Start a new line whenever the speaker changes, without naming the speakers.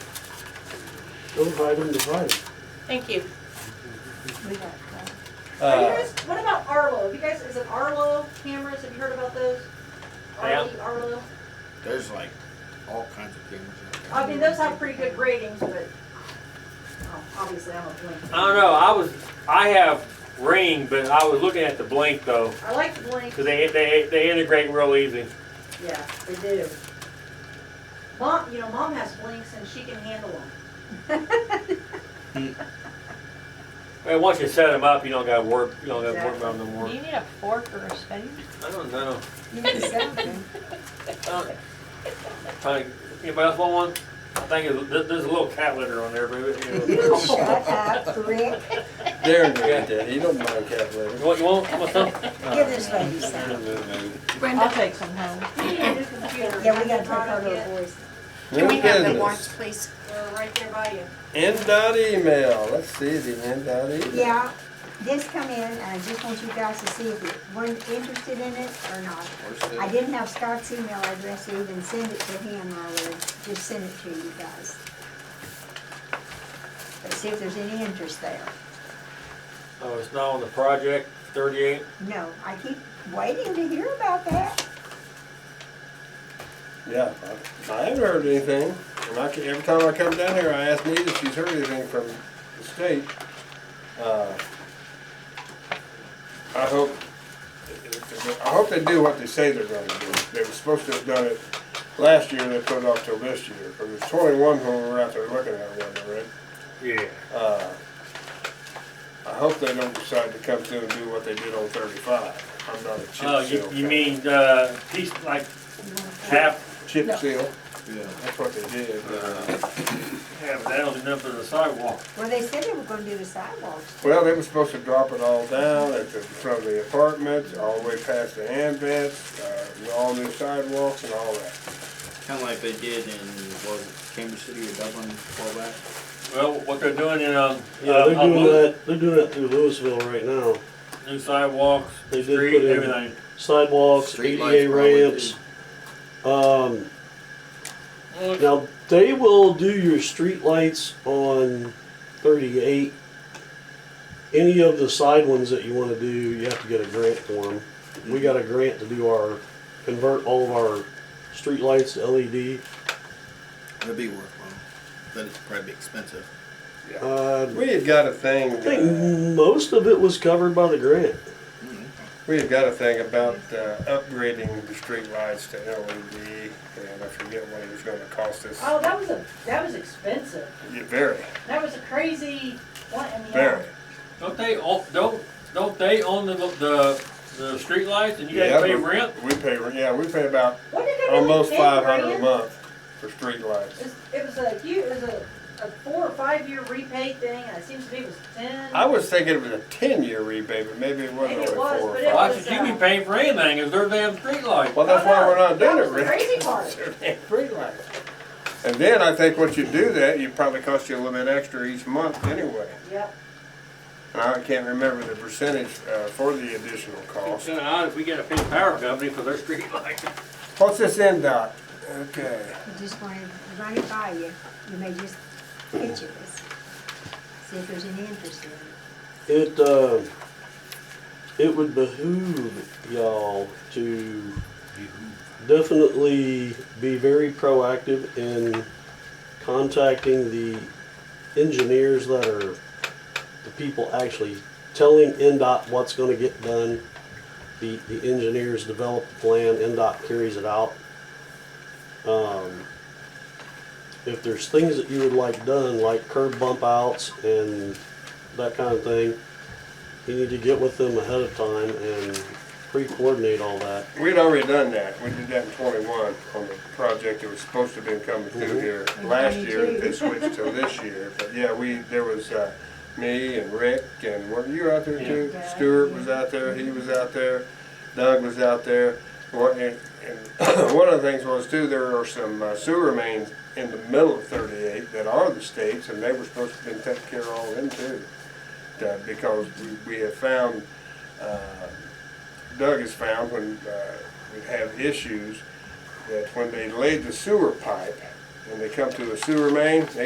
Those item divided.
Thank you.
Are you
Uh,
guys, what about Arlo? Have you guys, is it Arlo cameras? Have you heard about those?
Yeah.
RE, Arlo?
There's like all kinds of cameras out
I mean, those have pretty good ratings, but, oh, obviously I'm a blink.
I don't know, I was, I have Ring, but I was looking at the Blink though,
I like the blink,
because they, they, they integrate real easy.
yeah, they do. Mom, you know, mom has blinks and she can handle them.
And once you set them up, you don't gotta work, you don't gotta work
Exactly.
on them
Do
more.
you need a fork or a spoon?
I don't know.
You need something.
Uh, Trying, to- anybody else want one? I think it- there- there's a little cat litter on there, but it- you
You
know.
shut up, Rick.
There, there, there. You don't mind cat litter.
You want, you want, you want some?
Give this lady some.
I'll take some home.
We need a new computer.
Yeah, we gotta take her little voice.
New
Can we have the
business.
warrants, please?
We're uh, right there by you.
End dot email. Let's see the end dot email.
Yeah, this come in, and I just want you guys to see if you weren't interested in it or not. I
there.
didn't have Scott's email address to even send it to him, I would just send it to you guys. But see if there's any interest there.
Oh, it's not on the project, thirty-eight.
No, I keep waiting to hear about that.
Yeah, I, I haven't heard anything. And I, ca- every time I come down here, I ask Nita if she's heard anything from the state. Uh, I hope, I hope they do what they say they're gonna do. They were supposed to have done it last year, they put it off till this year. But there's twenty-one when we were out there looking at one, right?
Yeah.
Uh, I hope they don't decide to come through and do what they did on thirty-five. I'm not a chip seal.
Oh, you, you
guy.
mean, uh, piece, like, half,
Chip
No.
seal,
Yeah.
that's what they did. uh,
half down and up to the sidewalk.
Well, they said they were gonna do the sidewalks.
Well, they were supposed to drop it all down at the front of the apartments, all the way past the hand vents, uh, all new sidewalks and all that.
Kinda like they did in, what was it, Cambridge City or Dublin, a while back?
Well, what they're doing in, um,
Yeah, they're
uh, on
doing
Lew-
that, they're doing that through Louisville right now.
new sidewalks,
They
street,
did put in-
everything.
Sidewalks,
Streetlights
ADA
probably
ramps. Um,
Well,
now, they will do your street lights on thirty-eight. Any of the side ones that you wanna do, you have to get a grant for them. We
Mm-hmm.
got a grant to do our, convert all of our street lights to E LED.
It'd be worthwhile, but it'd probably be expensive.
Uh,
We had got a thing,
I think
uh,
most of it was covered by the grant.
we had got a thing about, uh, upgrading the streetlights to LED, and I forget what it was gonna cost us.
Oh, that was a, that was expensive.
Yeah, Very,
That was a crazy one in the.
very.
Don't they, own- don't, don't they own the, the, the streetlights and you
Yeah,
gotta pay
but
rent?
We pay, re- yeah, we pay about
What did it really
almost
pay,
five hundred a
Brian?
month for streetlights.
It's- It was a huge, it was a, a four or five year repay thing, and it seems to me it was ten.
I was thinking it was a ten-year rebate, but maybe it wasn't
Maybe
only
it was,
four or five.
but it-
Why should you be paying for anything if they're damn streetlights?
Well, that's why we're not doing
Oh, That
it,
was the
Rick.
crazy part.
And then I think once you do that, you probably cost you a little bit extra each month anyway.
Yep,
And I can't remember the percentage uh, for the additional
It's
cost.
kinda odd if we gotta pay the power company for their streetlights.
What's this end dot? Okay.
I just wanted to run it by you. You may just picture this. See if there's any interest in it.
It, uh, it would behoove y'all to definitely be very proactive in contacting the engineers that are the people actually telling NDOT what's gonna get done. The, the engineers develop the plan, NDOT carries it out. Um, if there's things that you would like done, like curb bump outs and that kind of thing, you need to get with them ahead of time and pre-coordinate all that.
We'd already done that. We did that in twenty-one on the project that was supposed to have been coming through
Mhm.
here last year.
22.
It switched to this year. But yeah, we, there was uh, me and Rick and were you were out there too?
Yeah.
Stuart was out there, he was out there, Doug was out there. One- And and one of the things was too, there are some uh, sewer mains in the middle of thirty-eight that are the states and they were supposed to have been taken care of all them too. Uh, Because we- we have found uh, Doug has found when uh, we have issues, that when they laid the sewer pipe, when they come to the sewer main, they